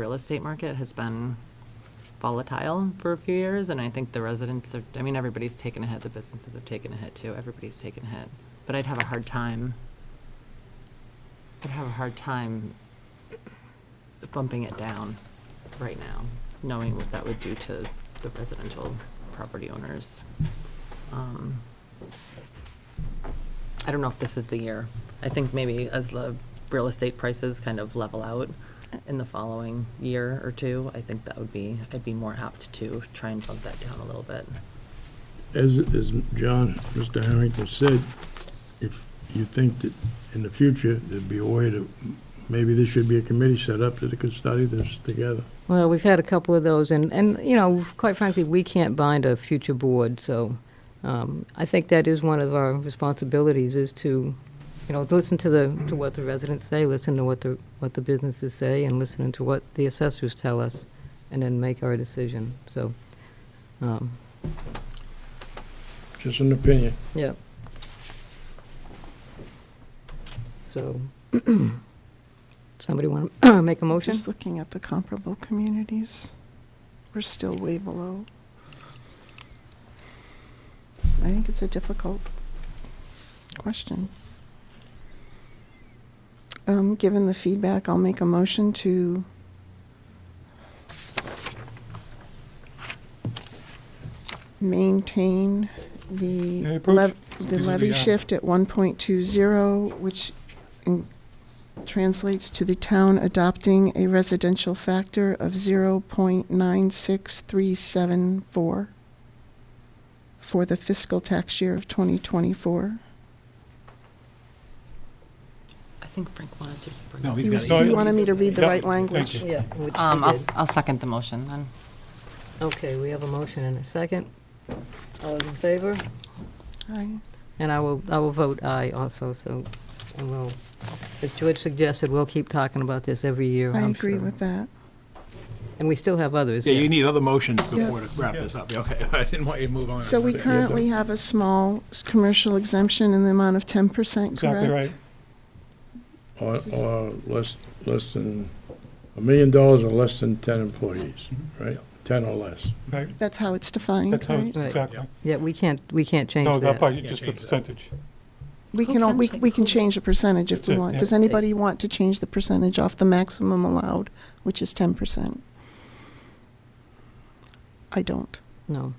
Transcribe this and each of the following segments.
real estate market has been volatile for a few years, and I think the residents are, I mean, everybody's taken a hit, the businesses have taken a hit too, everybody's taken a hit. But I'd have a hard time, I'd have a hard time bumping it down right now, knowing what that would do to the residential property owners. Um, I don't know if this is the year. I think maybe as the real estate prices kind of level out in the following year or two, I think that would be, I'd be more apt to try and bump that down a little bit. As, as John, Mr. Harrington said, if you think that in the future, there'd be a way to, maybe there should be a committee set up that could study this together. Well, we've had a couple of those, and, and, you know, quite frankly, we can't bind a future board, so um, I think that is one of our responsibilities, is to, you know, listen to the, to what the residents say, listen to what the, what the businesses say, and listen to what the assessors tell us, and then make our decision, so, um, Just an opinion. yeah. So, somebody want to make a motion? Just looking at the comparable communities, we're still way below. I think it's a difficult question. Um, given the feedback, I'll make a motion to maintain Any the approach? lev- These are the the, levy uh, shift at one point two zero, which in- translates to the town adopting a residential factor of zero point nine six three seven four for the fiscal tax year of twenty twenty-four. I think Frank wanted to bring. No, up- he's You got it. you wanted me to read the Yep. right Thank language. you. Yeah, which we Um, I'll, did. s- I'll second the motion then. Okay, we have a motion and a second. All those in favor? Aye. And I will, I will vote aye also, so, and we'll, as George suggested, we'll keep talking about this every year, I I'm agree sure. with that. And we still have others. Yeah, you need other motions Yeah. before to wrap this up. Yeah, Okay, I didn't want you to move on. So we currently have a small s- commercial exemption in the amount of ten percent, correct? Exactly right. Or, or less, less than, a million dollars or less than ten employees, right? Ten or less. Right, That's how it's defined, that's how, it's- right? Right. exactly. Yeah, we can't, we can't change No, that that. part, Can't just the change that. percentage. We Who can, al- can we check- we can who- change the percentage if That's we it, want. yeah. Does anybody want to change the percentage off the maximum allowed, which is 10%? I don't. No,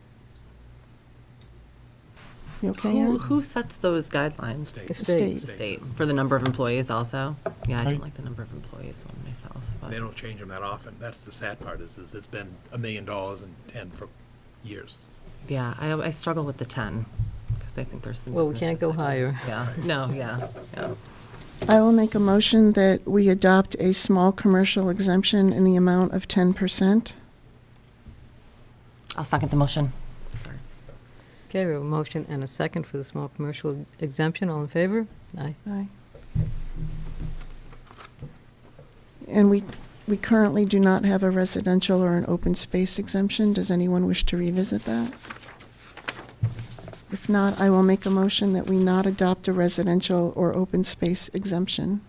You okay, Who, Aaron? who sets those guidelines? the The state. state. The state, for the number of employees also? Yeah, I don't Right. like the number of employees one myself, They but don't change them that often. That's the sad part is, is it's been a million dollars and ten for years. yeah, I, I struggle with the ten, because I think there's some. Well, we can't businesses go that higher. Yeah, no, yeah, yeah. I will make a motion that we adopt a small commercial exemption in the amount of 10%. I'll second the motion. Okay, we have a motion and a second for the small commercial exemption, all in favor? Aye. Aye. And we, we currently do not have a residential or an open space exemption. Does anyone wish to revisit that? If not, I will make a motion that we not adopt a residential or open space exemption.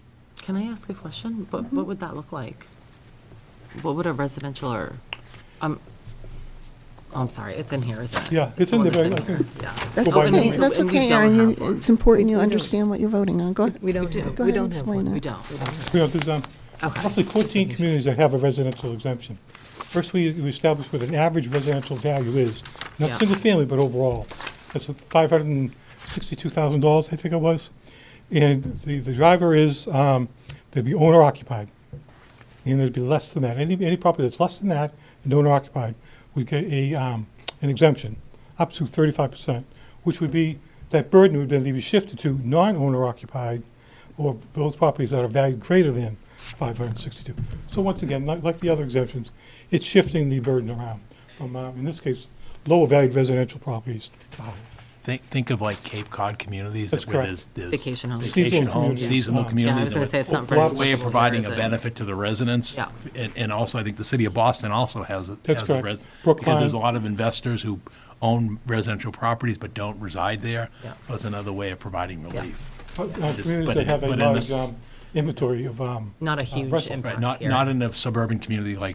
Can I ask a question? Mm-hmm. What, what would that look like? What would a residential or, um, oh, I'm sorry, it's in here, isn't it? Yeah, it's in one the that's very- I think- Yeah. That's Go by okay, number. that's And we okay, don't Aaron. You- have one. It's important We- you we don't. understand what you're voting on. Go ahead. We don't do. have, Go we ahead and don't have one. explain it. We don't, we don't. You know, there's, um, Okay, roughly fourteen communities that have a residential exemption. First, we we establish what an average residential value is, Yeah. not single family, but overall. That's five hundred and sixty-two thousand dollars, I think it was. And the, the driver is, um, they'd be owner occupied. And there'd be less than that. Any, any property that's less than that and owner occupied would get a, um, an exemption, up to thirty-five percent, which would be, that burden would then be shifted to non-owner occupied or those properties that are valued greater than five hundred and sixty-two. So once again, like, like the other exemptions, it's shifting the burden around from, uh, in this case, lower valued residential properties uh, to higher. Think, think of like Cape Cod communities That's that where there's, correct. there's. Vacation homes. Vacation Seasonal homes, communities. seasonal Yeah, I was communities. gonna say it's not a very Way of seasonal, is providing a it? benefit to the residents. Yeah. And, and also I think the city of Boston also has. it- That's has the correct. res- Because Brookline. there's a lot of investors who own residential properties but don't reside there. Yeah. So it's another way of providing relief. Uh, uh, Just- Communities but that in- have a but in large, this- um, inventory of, um, Not a huge rental, right, impact Right, not, here. not in a suburban community like